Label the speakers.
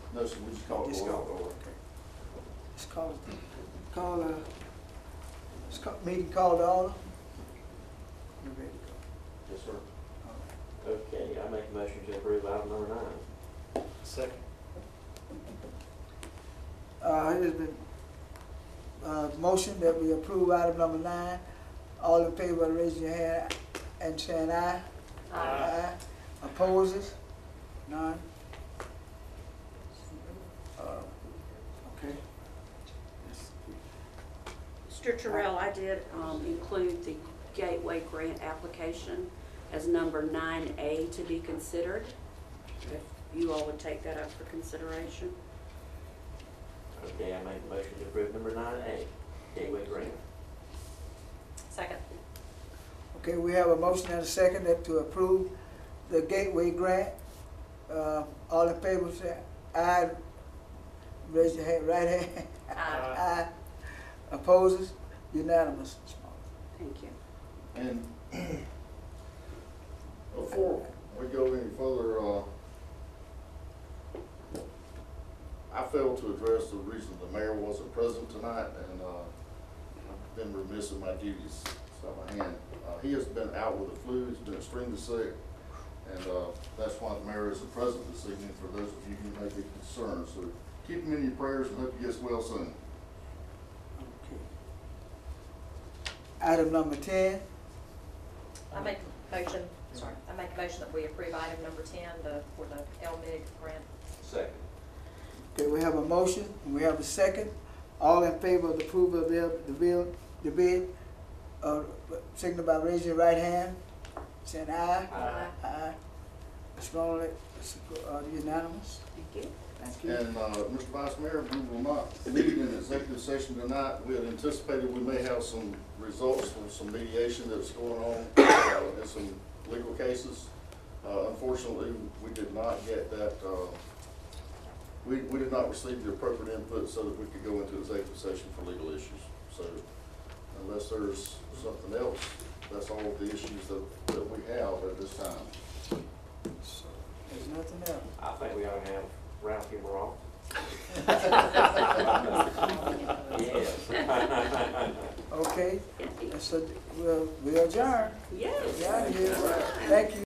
Speaker 1: No, sir, we just call it
Speaker 2: Just
Speaker 1: oil.
Speaker 2: call it oil, okay. Let's call, call, uh, let's call, meeting called to order. You ready to go?
Speaker 1: Yes, sir.
Speaker 2: All right.
Speaker 3: Okay, I make a motion to approve item number nine.
Speaker 4: Second.
Speaker 2: Uh, it has been, uh, motion that we approve item number nine. All in favor, raise your hand and saying aye. Aye. Opposes? None? Uh, Okay. Yes.
Speaker 5: Mr. Terrell, I did um, include the Gateway Grant application as number 9A to be considered. If you all would take that up for consideration.
Speaker 3: Okay, I make a motion to approve number nine A, gateway grant.
Speaker 5: Second.
Speaker 2: Okay, we have a motion and a second that to approve the Gateway Grant. Uh, all in favor, say aye. Raise your hand, right hand. Uh,
Speaker 5: Aye.
Speaker 2: Aye. Opposes? Unanimous.
Speaker 5: Thank you.
Speaker 1: And before we go any further, uh, I failed to address the reason the mayor wasn't present tonight, and, uh, I've been remiss in my duties, so my hand. Uh, he has been out with the flu, he's been extremely sick, and, uh, that's why the mayor isn't present this evening, for those of you who may be concerned, so keep him in your prayers and hope he gets well soon.
Speaker 2: Okay. Item number ten,
Speaker 6: I make a motion, sorry, I make a motion that we approve item number ten, the, for the LMIG grant.
Speaker 3: Second.
Speaker 2: okay, we have a motion, and we have a second. All in favor of the approval of the, the bill, the bid, uh, signify by raising your right hand, saying aye.
Speaker 3: Aye.
Speaker 2: Aye. Ms. Rowley, it's uh, unanimous.
Speaker 5: Thank you.
Speaker 2: Thank you.
Speaker 1: And, uh, Mr. Vice Mayor, we will not meet in executive session tonight. We had anticipated we may have some results from some mediation that's going on uh, in some legal cases. Uh, unfortunately, we did not get that, uh, we, we did not receive the appropriate input so that we could go into executive session for legal issues. So unless there's something else, that's all of the issues that, that we have at this time.
Speaker 2: So, There's nothing else.
Speaker 3: I think we ought to have Ralph here off. Yes.
Speaker 2: Okay, so we'll, we'll adjourn.
Speaker 5: Yes.
Speaker 2: Yeah, yeah. Thank you.